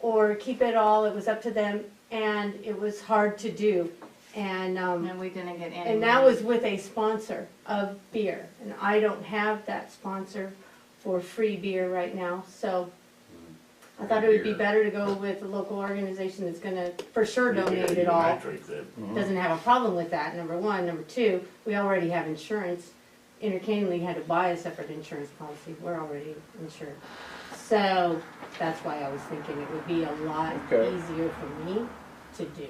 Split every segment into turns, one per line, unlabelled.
or keep it all, it was up to them, and it was hard to do. And, um,
And we didn't get any.
and that
money.
was with a sponsor of beer, and I don't have that sponsor for free beer right now, so I thought it would be
Beer.
better to go with a local organization that's gonna for sure
Yeah,
donate
you
it all.
might drink that.
Mm-hmm.
Doesn't have a problem with that, number one. Number two, we already have insurance. Entertainment League had to buy a separate insurance policy. We're already insured. So that's why I was thinking it would be a lot
Okay.
easier for me to do.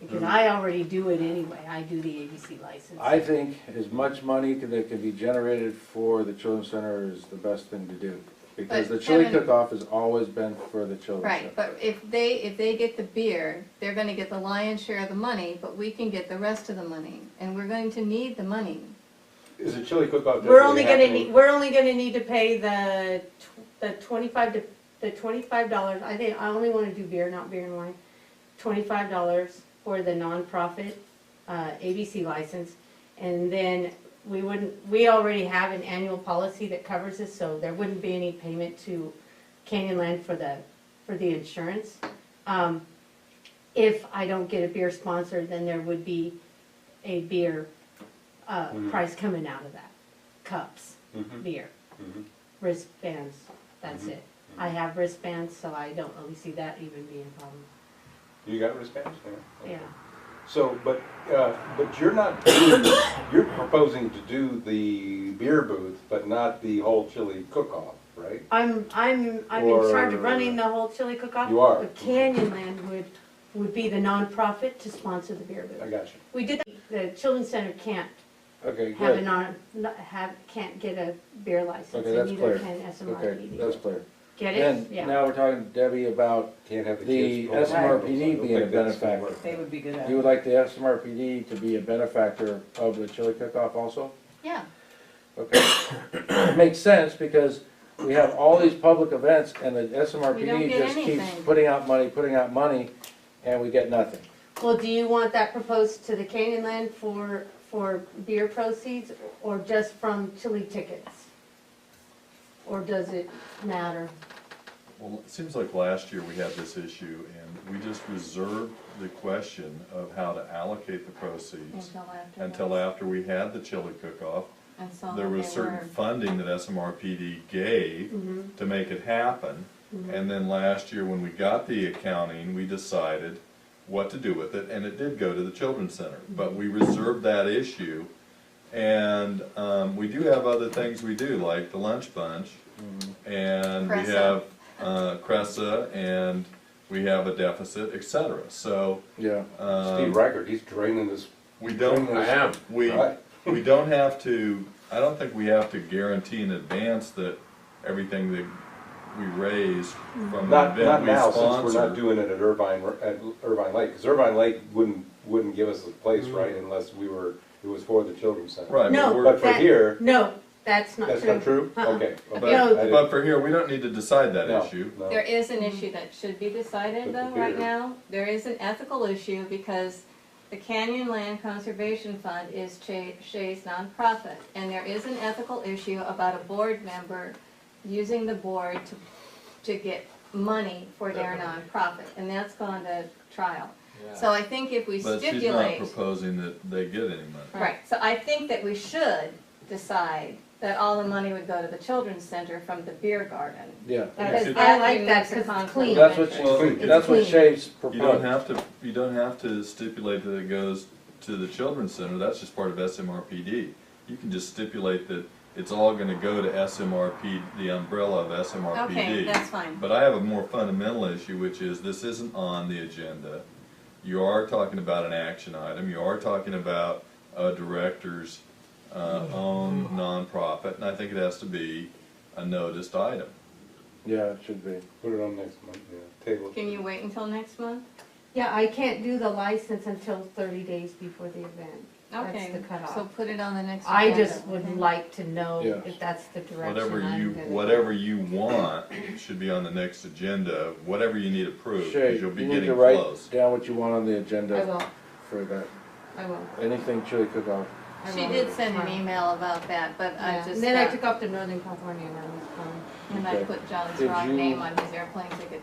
Because I already do it anyway. I do the ABC license.
Mm-hmm. I think as much money can- that can be generated for the children's center is the best thing to do. Because
But
the chili
Kevin-
cook-off has always been for the children's
Right,
center.
but if they, if they get the beer, they're gonna get the lion's share of the money, but we can get the rest of the money, and we're going to need the money.
Is a chili cook-off
We're only
definitely
gonna need,
happening?
we're only gonna need to pay the, tw- the twenty-five to, the twenty-five dollars, I think, I only wanna do beer, not beer and wine. Twenty-five dollars for the nonprofit, uh, ABC license, and then we wouldn't, we already have an annual policy that covers this, so there wouldn't be any payment to Canyonland for the, for the insurance. Um, if I don't get a beer sponsor, then there would be a beer, uh, price coming out of that cups,
Mm-hmm.
beer, wristbands, that's it. I have wristbands, so I don't really see that even being a problem,
You got wristbands? Yeah.
yeah.
So, but, uh, but you're not, doing- you're proposing to do the beer booth, but not the whole chili cook-off, right?
I'm, I'm, I'm in charge
Or-
of running the whole chili cook-off.
You are.
But Canyonland would, would be the nonprofit to sponsor the beer
I
booth.
got you.
We did, the Children's Center can't
Okay,
have a
good.
non, not- have, can't get a beer license,
Okay,
and
that's
neither
clear.
can
Okay, that's
SMRPD.
clear.
Get
Then,
it? Yeah.
now we're talking to Debbie about
Can't have the
the
kids. vote. I
SMRPD
don't
being a
think that's gonna
benefactor.
They would be good at
You would
it.
like the SMRPD to be a benefactor of the chili cook-off also?
Yeah,
Okay. Makes sense, because we have all these public events, and the
We don't
SMRPD
get
just keeps
anything.
putting out money, putting out money, and we get nothing.
Well, do you want that proposed to the Canyonland for, for beer proceeds, or just from chili tickets? Or does it matter?
Well, it seems like last year we had this issue, and we just reserved the question of how to allocate the proceeds
until after.
until after we had the chili cook-off.
And so
There
Oh, they
was certain
were- Mm-hmm.
funding that SMRPD gave to make it happen. And then last year, when we got the accounting, we decided what to do with it, and it did go to the children's center. But
Mm-hmm.
we reserved that issue, and um, we do have other things we do, like the lunch bunch, and we
Cressa.
have uh, Cressa, and we have a deficit, et cetera. So
Yeah.
um,
Steve Reichert, he's draining this.
we don't.
draining
I
this-
am.
We,
Right.
we don't have to, I don't think we have to guarantee in advance that everything that we raise from an
Not,
event
not
we
now, since we're not
sponsor.
doing it at Irvine, at Irvine Lake, because Irvine Lake wouldn't, wouldn't give us a place, right, unless we were, it was for the children's center.
Mm. Right,
No,
but
But
we're,
for
That-
here,
No, that's not true.
that's not true?
Uh-uh.
Okay.
but,
okay. I
No.
didn't-
but for here, we don't need to decide that
no,
issue.
no.
There is an issue that should be decided
But
though,
the
right
beer-
now, there is an ethical issue because the Canyon Land Conservation Fund is Che- Shay's nonprofit, and there is an ethical issue about a board member using the board to, to get money for their nonprofit, and that's gone to trial. So I think if we
But she's not
stipulate,
proposing that they get any money.
right, so I think that we should decide that all the money would go to the children's center from the beer garden.
Yeah.
Because
Because
I like
that
that
removes the
because it's
conflict.
clean.
That's what,
Well,
she- that's what Shay's
You don't
proposed.
have to, you don't have to stipulate that it goes to the children's center, that's just part of SMRPD. You can just stipulate that it's all gonna go to SMRP, the umbrella of SMRPD.
Okay, that's fine.
But I have a more fundamental issue, which is this isn't on the agenda. You are talking about an action item, you are talking about a director's uh, own
Mm-hmm.
nonprofit, and I think it has to be a noticed item.
Yeah, it should be.
Put it on next month, yeah, table. it.
Can you wait until next month?
Yeah, I can't do the license until thirty days before the event. That's
Okay,
the cutoff.
so put it on the next.
I
agenda,
just would
okay?
like to know
Yeah.
if that's the direction
Whatever you,
I'm gonna.
whatever you want should be on the next agenda, whatever you need approved,
Shay,
because you'll
you
be
need
getting
to write
close.
down what you want on the
I
agenda
will,
for that.
I will,
Anything chili cook-off.
I will.
She did send an
Fine.
email about that, but I
Yeah,
just,
and then I
got-
took off to Northern California and I was, um,
and I
Okay.
put John's
Did
wrong
you-
name on his airplane ticket